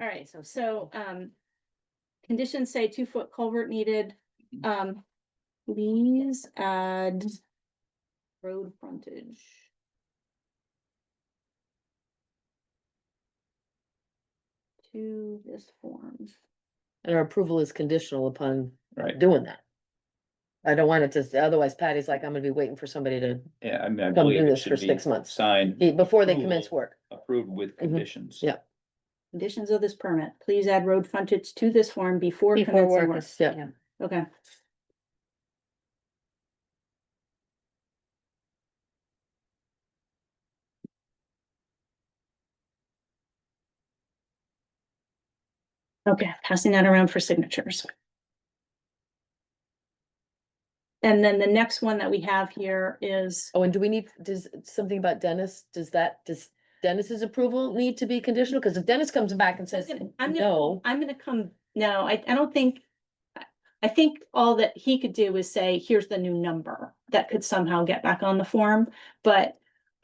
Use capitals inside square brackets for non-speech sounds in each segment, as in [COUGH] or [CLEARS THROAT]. All right, so, so, um. Conditions say two foot culvert needed, um, please add. Road frontage. To this form, And our approval is conditional upon Right, doing that. I don't want it to, s- otherwise Patty's like, I'm gonna be waiting for somebody to, yeah, I mean, I Come do believe it this for should be six months. signed, be- before they commence Approval. work. approved with conditions. Yeah. conditions of this permit, please add road frontage to this form before. Before commencing work is, yeah. yeah, Okay. Okay, passing that around for signatures. And then the next one that we have here is, Oh, and do we need, does, something about Dennis, does that, does Dennis's approval need to be conditional? Cause if Dennis comes back and says, I'm gonna- no. I'm gonna come, no, I, I don't think. I- I think all that he could do is say, here's the new number that could somehow get back on the form, but.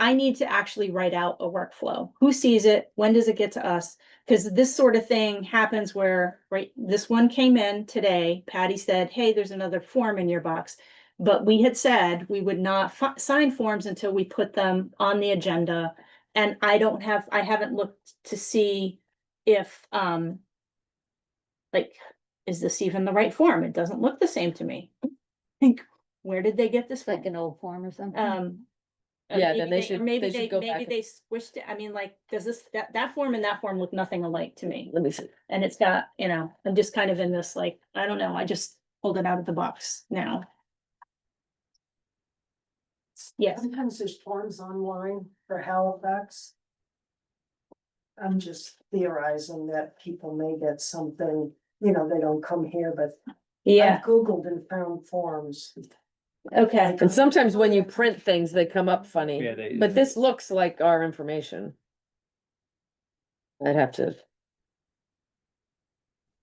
I need to actually write out a workflow. Who sees it? When does it get to us? Cause this sort of thing happens where, right, this one came in today. Patty said, hey, there's another form in your box. But we had said we would not fi- sign forms until we put them on the agenda. And I don't have, I haven't looked to see if, um, like, is this even the right form? It doesn't look the same to me. Think, where did they get this it's like from? an old form or something. Um. uh, e-, Yeah, then maybe they should- or Maybe they should they, go maybe back they squished it. I mean, like, does this, that, that form and that form look nothing alike to me? Let me see. And it's got, you know, I'm just kind of in this, like, I don't know, I just pulled it out of the box now. Yes, Sometimes there's forms online for Halifax. I'm just theorizing that people may get something, you know, they don't come here, but yeah, I've Googled and found forms. okay. And sometimes when Oh, you print things, they come up funny, Yeah, they. but this looks like our information. I'd have to.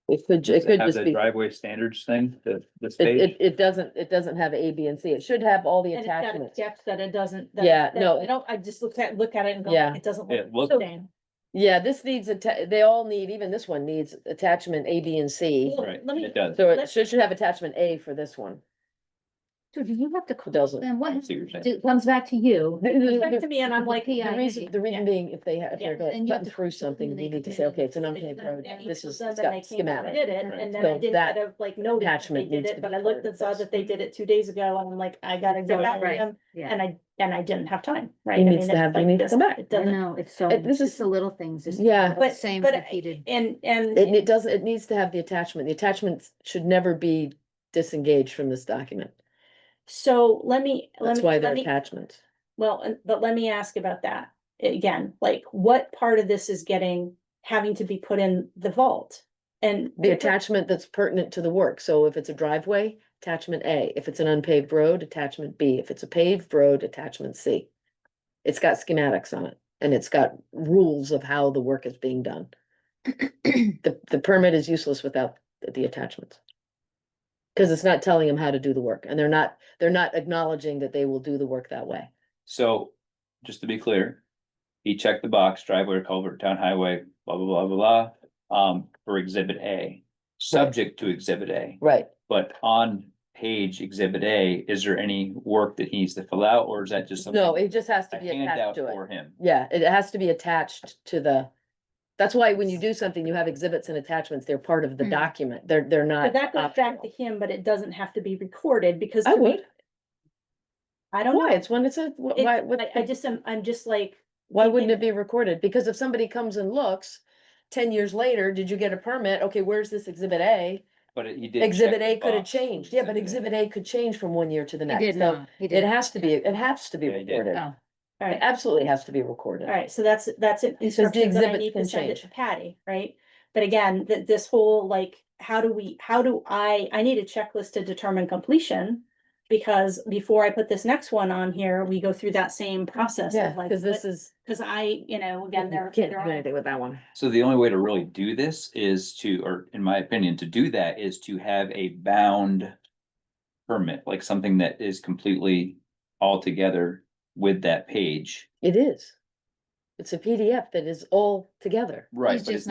It could, ju- does it could have just the be, it, Driveway standards thing, the, this it, page, it doesn't, it doesn't have A, B, and C. It should have all the And it's got a attachments. depth that it doesn't. that- Yeah, that- no. I don't, I just looked at, look at it and go, Yeah. it doesn't Yeah, look the look- same. Yeah, this needs, atta- they all need, even this one needs attachment A, B, and C. Well, right, let me- it does. So it let's- should, should have attachment A for this one. So do you have to, call doesn't. [LAUGHS] then I what, see what you're saying. it comes back to you, Back The to me and I'm like. The "Yeah, reason, the reason being, if they have, if Yeah, they're then going- you have cutting to through put something something, in they the need to say, okay, it's an unpaved Then road, that this equals is, them, it's then got they came out and Did schematic. it, Right. and then So I didn't that kind of like notice that they attachment did needs to it, be but I part looked of and saw this. that they did it two days ago, and I'm like, I gotta go Right, back to right. them, yeah. and I, and I didn't have time, right? He I needs mean, to it's have- he like needs to this, come back. It I doesn't, know, it's so, It- this it's just is- the little things, just yeah. the But- same but I- repeated. and, and. It, it doesn't, it needs to have the attachment. The attachments should never be disengaged from this document. So let me, let That's me, why let they're me, attachments. well, and- but let me ask about that again, like, what part of this is getting, having to be put in the vault? And. The attachment that's pertinent to the work. So if it's a driveway, attachment A. If it's an unpaved road, attachment B. If it's a paved road, attachment C. It's got schematics on it and it's got rules of how the work is being [CLEARS THROAT] done. The, the permit is useless without the- the attachments. Cause it's not telling them how to do the work and they're not, they're not acknowledging that they will do the work that way. So, just to be clear, he checked the box, driveway, culvert, town highway, blah, blah, blah, blah, blah, um, for exhibit A. Subject to exhibit A, Right. but on page exhibit A, is there any work that he needs to fill out, or is that just? something- No, it just has A to be handout attached to it. for him. Yeah, it has to be attached to the, that's why when you do something, you have exhibits and attachments, they're part of the Mm. document, they're, they're But not. that goes back to optional. him, but it doesn't have to be recorded because. I to me- would, I don't why, know. it's when it's a, wh- It- why, what, I, I just am, I'm just like, why thinking wouldn't that- it be recorded? Because if somebody comes and looks, ten years later, did you get a permit? Okay, where's this exhibit A? But he did. check Exhibit the A could have box for changed, yeah, but exhibit A could change from one year to the He next, did so not, he it did. has to be, it has to be Yeah, he did. recorded. It Oh, all right, absolutely has to be recorded. all right, so that's, that's an instruction that I exhibits need to can send it change. to Patty, right? But again, that this whole like, how do we, how do I, I need a checklist to determine completion. Because before I put this next one on here, we go through that same process Yeah, of like, cause this is, because I, you know, again, there. you can't do there are- anything with that one. So the only way to really do this is to, or in my opinion, to do that is to have a bound permit, like something that is completely all together with that page. It is. It's a PDF that is all together. Right, He's but just it's